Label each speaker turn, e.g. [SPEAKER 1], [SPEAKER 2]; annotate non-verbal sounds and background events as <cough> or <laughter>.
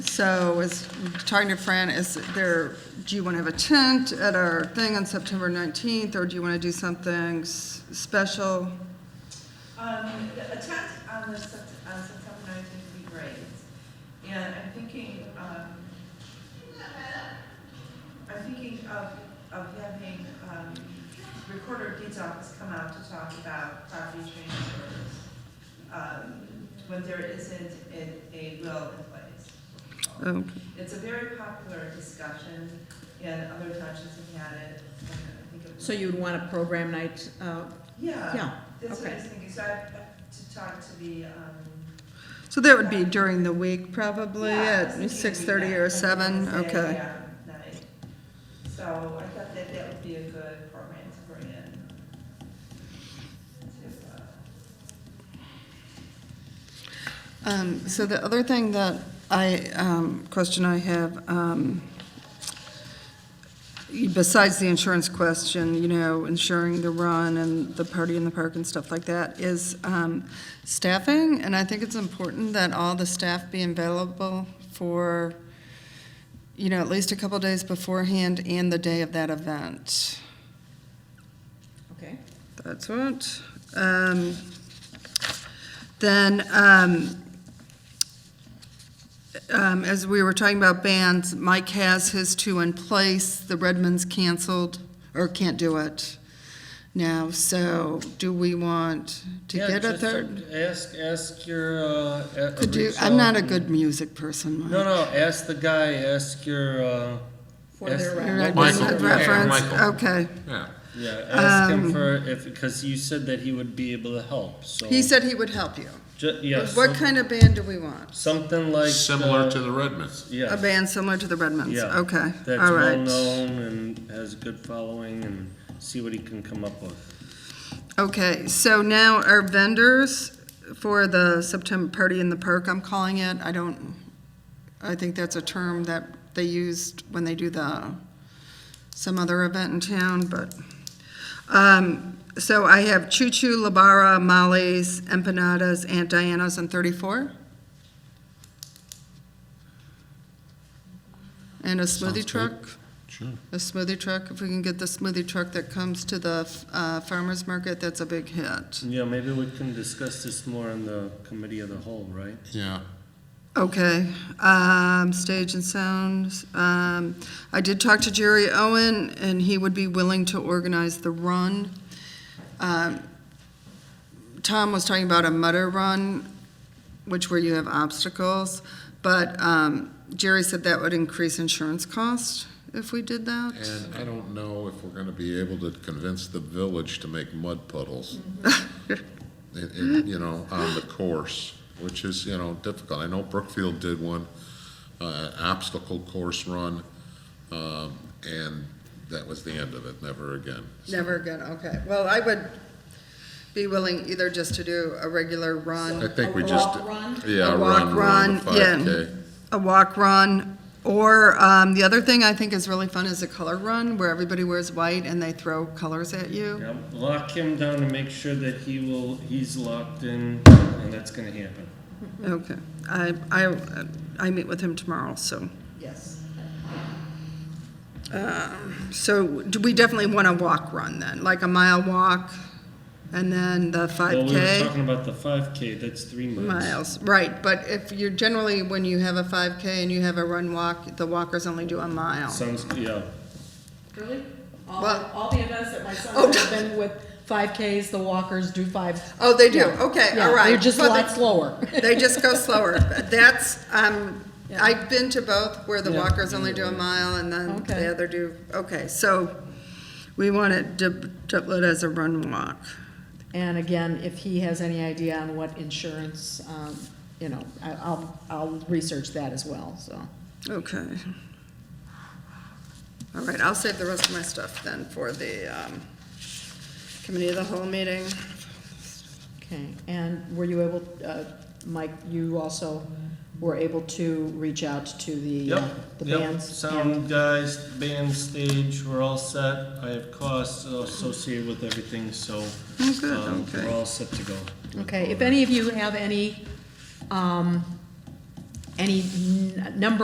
[SPEAKER 1] So as talking to Fran, is there, do you want to have a tent at our thing on September 19th? Or do you want to do something s- special?
[SPEAKER 2] Um, the- a tent on the, Sept- on September nineteenth would be great. And I'm thinking, um, I'm thinking of, of having, um, Recorder of Deeds Office come out to talk about property transfers, um, when there isn't a, a will in place.
[SPEAKER 1] Oh,
[SPEAKER 2] It's a very popular discussion, and other townships have had it. and I think it was-
[SPEAKER 3] So you would want a program night, uh,
[SPEAKER 2] Yeah,
[SPEAKER 3] yeah,
[SPEAKER 2] that's what I
[SPEAKER 3] okay.
[SPEAKER 2] was thinking, so I have to talk to the, um,
[SPEAKER 1] So that would be during the week, probably,
[SPEAKER 2] Yeah,
[SPEAKER 1] at
[SPEAKER 2] it's a
[SPEAKER 1] 6:30 or
[SPEAKER 2] weekend,
[SPEAKER 1] seven.
[SPEAKER 2] Wednesday,
[SPEAKER 1] Okay.
[SPEAKER 2] yeah, night. So I thought that that would be a good program to bring in. To, uh,
[SPEAKER 1] Um, So the other thing that I, um, question I have, um, besides the insurance question, you know, insuring the run and the party in the park and stuff like that, is um, staffing. And I think it's important that all the staff be available for, you know, at least a couple days beforehand and the day of that event.
[SPEAKER 2] uh,
[SPEAKER 3] Okay.
[SPEAKER 1] That's what. Um, Then, um, um, as we were talking about bands, Mike has his two in place. The Redmonds canceled, or can't do it now. So do we want to
[SPEAKER 4] Yeah,
[SPEAKER 1] get a
[SPEAKER 4] just,
[SPEAKER 1] third?
[SPEAKER 4] uh, Ask, ask your, uh. a-
[SPEAKER 1] Could you,
[SPEAKER 4] reach
[SPEAKER 1] I'm not
[SPEAKER 4] out
[SPEAKER 1] a
[SPEAKER 4] and-
[SPEAKER 1] good music person, Mike.
[SPEAKER 4] No, no, ask the guy, ask your, uh,
[SPEAKER 3] For their
[SPEAKER 4] Yes.
[SPEAKER 1] Your
[SPEAKER 3] record.
[SPEAKER 1] Redmond
[SPEAKER 5] Michael, yeah,
[SPEAKER 1] Reference, Um,
[SPEAKER 5] Michael.
[SPEAKER 1] okay.
[SPEAKER 5] Yeah.
[SPEAKER 4] yeah, ask him for, if, because you said that he would be able to help, so.
[SPEAKER 1] He said he would help you.
[SPEAKER 4] Ju- yeah,
[SPEAKER 1] What
[SPEAKER 4] some-
[SPEAKER 1] kind of band do we want?
[SPEAKER 4] Something like.
[SPEAKER 5] Similar to
[SPEAKER 4] uh,
[SPEAKER 5] the Redmonds.
[SPEAKER 1] A
[SPEAKER 4] Yeah,
[SPEAKER 1] band similar to the Redmonds,
[SPEAKER 4] yeah.
[SPEAKER 1] okay,
[SPEAKER 4] That's
[SPEAKER 1] all right.
[SPEAKER 4] well-known and has a good following and see what he can come up with.
[SPEAKER 1] Okay, so now our vendors for the September party in the park, I'm calling it, I don't, I think that's a term that they used when they do the, some other event in town, but. Um, so I have Choo Choo, Labara, Molly's, Empanadas, Aunt Diana's, and thirty-four. And a smoothie
[SPEAKER 5] good.
[SPEAKER 1] truck
[SPEAKER 5] Sure.
[SPEAKER 1] a smoothie truck, if we can get the smoothie truck that comes to the uh, farmer's market, that's a big hit.
[SPEAKER 4] Yeah, maybe we can discuss this more on the committee of the whole, right?
[SPEAKER 5] Yeah.
[SPEAKER 1] Okay, um, stage and sound. Um, I did talk to Jerry Owen, and he would be willing to organize the run. Um, Tom was talking about a mutter run, which where you have obstacles, but um, Jerry said that would increase insurance costs if we did that.
[SPEAKER 5] And I don't know if we're gonna be able to convince the village to make mud puddles. In, in, you know, on the course, which is, you know, difficult. I know Brookfield did one, uh, obstacle course run, um, and that was the end of it, never again. So-
[SPEAKER 1] Never again, okay. Well, I would be willing either just to do a regular
[SPEAKER 5] I
[SPEAKER 1] run,
[SPEAKER 5] think
[SPEAKER 3] A
[SPEAKER 5] we just.
[SPEAKER 3] walk, run?
[SPEAKER 5] Yeah,
[SPEAKER 1] A
[SPEAKER 5] a
[SPEAKER 1] walk,
[SPEAKER 5] run, run,
[SPEAKER 1] run, yeah.
[SPEAKER 5] five K.
[SPEAKER 1] a walk run, or um, the other thing I think is really fun is a color run where everybody wears white and they throw colors at you.
[SPEAKER 4] Yeah, lock him down and make sure that he will, he's locked in, and that's gonna happen.
[SPEAKER 1] Okay, I, I, I meet with him tomorrow, so.
[SPEAKER 3] Yes.
[SPEAKER 1] Um, So do we definitely want a walk run then, like a mile walk and then the
[SPEAKER 4] Well,
[SPEAKER 1] five
[SPEAKER 4] we were
[SPEAKER 1] K?
[SPEAKER 4] talking about the five K, that's three miles.
[SPEAKER 1] Miles, right, but if you're generally, when you have a five K and you have a run walk, the walkers only do a mile.
[SPEAKER 4] Sounds, yeah,
[SPEAKER 3] Really? All,
[SPEAKER 1] Well-
[SPEAKER 3] all the events that my
[SPEAKER 1] Oh,
[SPEAKER 3] son has been with, five Ks, the walkers do five.
[SPEAKER 1] Oh, they do,
[SPEAKER 3] Yeah.
[SPEAKER 1] okay,
[SPEAKER 3] Yeah,
[SPEAKER 1] all right.
[SPEAKER 3] They're just a
[SPEAKER 1] Well,
[SPEAKER 3] lot slower. <laughs>
[SPEAKER 1] They just go slower. That's, um, I've been to both where the
[SPEAKER 4] Yeah.
[SPEAKER 1] walkers only do a mile and then
[SPEAKER 3] Okay.
[SPEAKER 1] the other do, okay, so we want it dub- doublet as a run walk.
[SPEAKER 3] And again, if he has any idea on what insurance, um, you know, I- I'll, I'll research that as well, so.
[SPEAKER 1] Okay. All right, I'll save the rest of my stuff then for the, um, committee of the whole meeting.
[SPEAKER 3] Okay, and were you able, uh, Mike, you also were able to reach out to the, uh,
[SPEAKER 4] yep,
[SPEAKER 3] the
[SPEAKER 4] yep,
[SPEAKER 3] bands? and-
[SPEAKER 4] sound guys, band stage, we're all set, I have costs associated with everything, so.
[SPEAKER 1] Oh, good,
[SPEAKER 4] um,
[SPEAKER 1] okay.
[SPEAKER 4] We're all set to go.
[SPEAKER 3] Okay, if any of you have any um, any n- number